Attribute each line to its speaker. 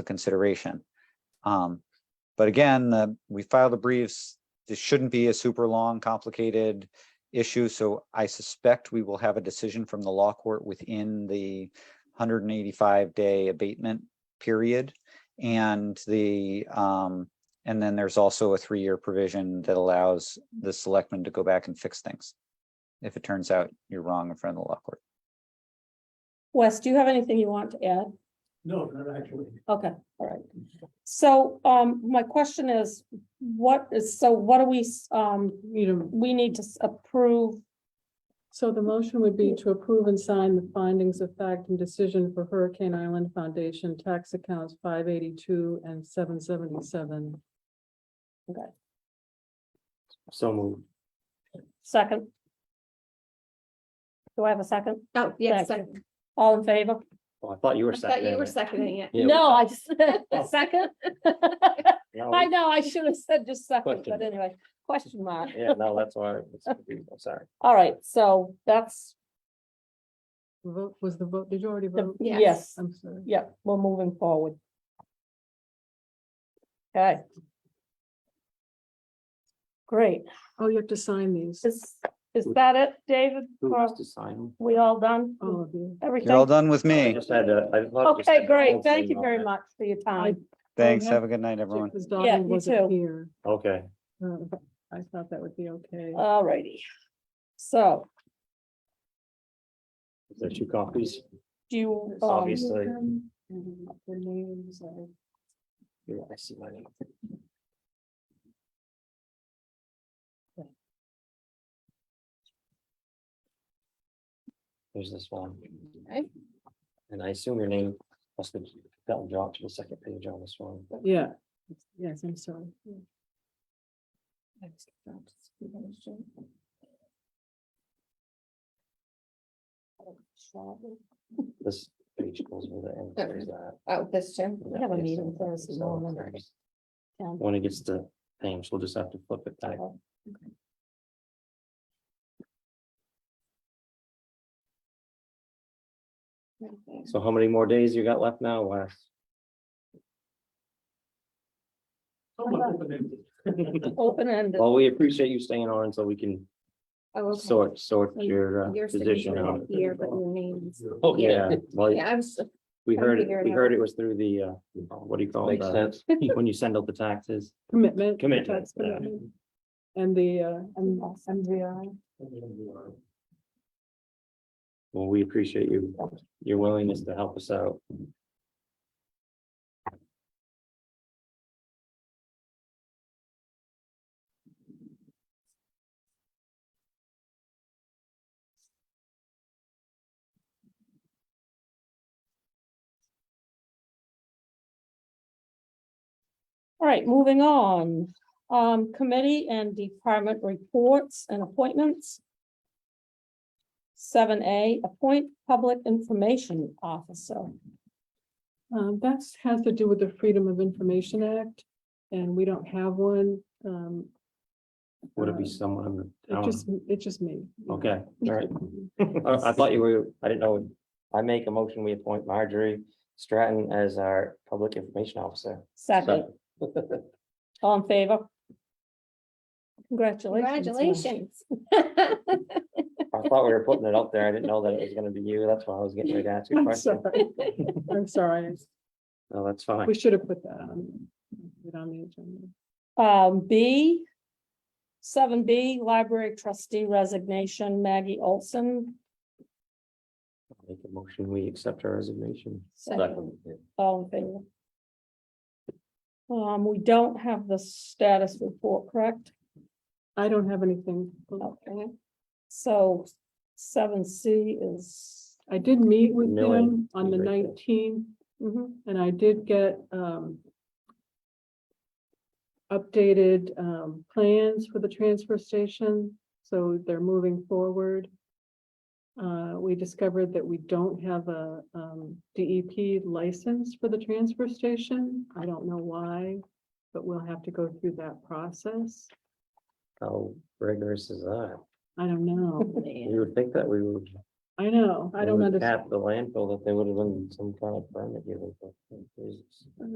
Speaker 1: the consideration. Um, but again, the, we filed the briefs. This shouldn't be a super long, complicated issue, so I suspect we will have a decision from the law court within the hundred and eighty-five day abatement period. And the, um, and then there's also a three-year provision that allows the selectmen to go back and fix things. If it turns out you're wrong in front of the law court.
Speaker 2: Wes, do you have anything you want to add?
Speaker 3: No, not actually.
Speaker 2: Okay, all right. So, um, my question is, what is, so what do we, s- um,
Speaker 4: You know,
Speaker 2: we need to s- approve?
Speaker 4: so the motion would be to approve and sign the findings of fact and decision for Hurricane Island Foundation tax accounts five eighty-two and seven seventy-seven.
Speaker 3: So moved.
Speaker 2: Second? Do I have a second?
Speaker 5: Oh, yes,
Speaker 2: Second.
Speaker 5: second.
Speaker 2: All in favor?
Speaker 3: Well, Oh, I thought you were
Speaker 5: I thought you
Speaker 3: seconding
Speaker 5: were
Speaker 3: it.
Speaker 5: seconding it.
Speaker 3: Yeah, Oh.
Speaker 2: No, I just, second?
Speaker 3: no,
Speaker 2: I know, I should have said just second, but
Speaker 3: Oh. Question.
Speaker 2: anyway, question mark.
Speaker 3: Yeah, no, that's why, I was confused. I'm sorry.
Speaker 2: All right, so that's,
Speaker 4: Vote, was the vote, did you already
Speaker 2: the
Speaker 4: vote?
Speaker 5: Yes.
Speaker 2: yes,
Speaker 4: I'm sorry.
Speaker 2: yeah, we're moving forward. Okay. Great.
Speaker 4: Oh, you have to sign these,
Speaker 2: Is, is that it, David?
Speaker 3: Who
Speaker 2: Well-
Speaker 3: has to sign them?
Speaker 2: We all done?
Speaker 4: all of you.
Speaker 1: You're all
Speaker 2: Everything?
Speaker 1: done with
Speaker 3: I
Speaker 1: me.
Speaker 3: just had to- I thought you said
Speaker 2: Okay,
Speaker 3: the
Speaker 2: great.
Speaker 3: whole
Speaker 2: Thank
Speaker 3: thing
Speaker 2: you very
Speaker 3: on it.
Speaker 2: much for your time.
Speaker 1: Thanks.
Speaker 4: have-
Speaker 1: Have a good night, everyone.
Speaker 4: Because
Speaker 2: Yeah,
Speaker 4: Donna
Speaker 2: you too.
Speaker 4: wasn't here.
Speaker 3: Okay,
Speaker 4: Uh, I thought that would be okay.
Speaker 2: All righty. So
Speaker 3: is there two copies?
Speaker 2: do you, um,
Speaker 3: Obviously.
Speaker 4: The names are.
Speaker 3: Yeah, I see my name. There's this one.
Speaker 5: Okay.
Speaker 3: And I assume your name must have gotten dropped to the second page on this one.
Speaker 4: Yeah, yes, I'm sorry.
Speaker 3: This page goes with it and
Speaker 5: Okay.
Speaker 3: there's that.
Speaker 5: Oh, this Jim.
Speaker 2: We have a meeting Thursday morning. Yeah.
Speaker 3: When it gets to James, we'll just have to flip it back.
Speaker 5: Oh,
Speaker 3: So how many more days you got left now, Wes?
Speaker 2: open-ended.
Speaker 3: Well, we appreciate you staying on so we can
Speaker 5: Oh, okay.
Speaker 3: sort, sort
Speaker 5: And
Speaker 3: your uh,
Speaker 5: Your
Speaker 3: position
Speaker 5: signature
Speaker 3: out.
Speaker 5: is here, but your name's.
Speaker 3: Oh, yeah, well,
Speaker 5: Yeah, I was,
Speaker 3: we
Speaker 5: trying to
Speaker 3: heard, it.
Speaker 5: figure it
Speaker 3: we
Speaker 5: out.
Speaker 3: heard it was through the, uh, what do you call it?
Speaker 6: Makes
Speaker 3: uh,
Speaker 6: sense.
Speaker 3: When you send out the taxes.
Speaker 4: Commitment.
Speaker 3: Commitment,
Speaker 4: that's
Speaker 3: yeah.
Speaker 4: commitment. And the, uh, and MVI.
Speaker 3: Well, we appreciate you, your willingness to help us out.
Speaker 2: All right, moving on. Um, committee and department reports and appointments. Seven A, appoint public information officer.
Speaker 4: Um, that's has to do with the Freedom of Information Act, and we don't have one. Um,
Speaker 3: Would it be
Speaker 4: Uh,
Speaker 3: someone? in the
Speaker 4: it
Speaker 3: town?
Speaker 4: just, it's just me.
Speaker 3: Okay, all right. I I thought you were, I didn't know. I make a motion, we appoint Marjorie Stratton as our public information officer.
Speaker 2: Second, all in favor? Congratulations. Mike.
Speaker 5: congratulations.
Speaker 3: I thought we were putting it up there. I didn't know that it was gonna be you. That's why I was getting ready to ask you a
Speaker 4: I'm
Speaker 3: question.
Speaker 4: sorry. I'm sorry.
Speaker 3: No, that's fine.
Speaker 4: We should have put that on. put it on the agenda.
Speaker 2: Um, B, seven B, library trustee resignation, Maggie Olson.
Speaker 3: Make a motion, we accept her resignation.
Speaker 2: Second. All in favor? Um, we don't have the status report, correct?
Speaker 4: I don't have anything.
Speaker 2: Okay. So seven C is,
Speaker 4: I did meet with
Speaker 3: Millie,
Speaker 4: them on the
Speaker 3: he's right there.
Speaker 4: nineteenth, mm-hmm,
Speaker 2: mhm,
Speaker 4: and I did get, um, updated, um, plans for the transfer station, so they're moving forward. Uh, we discovered that we don't have a, um, DEP license for the transfer station. I don't know why, but we'll have to go through that process.
Speaker 3: How rigorous is that?
Speaker 4: I don't know.
Speaker 3: You would think that we would
Speaker 4: I know, I don't
Speaker 3: would
Speaker 4: understand.
Speaker 3: uh, Cap the landfill that they would have been some kind of permit given. for- for-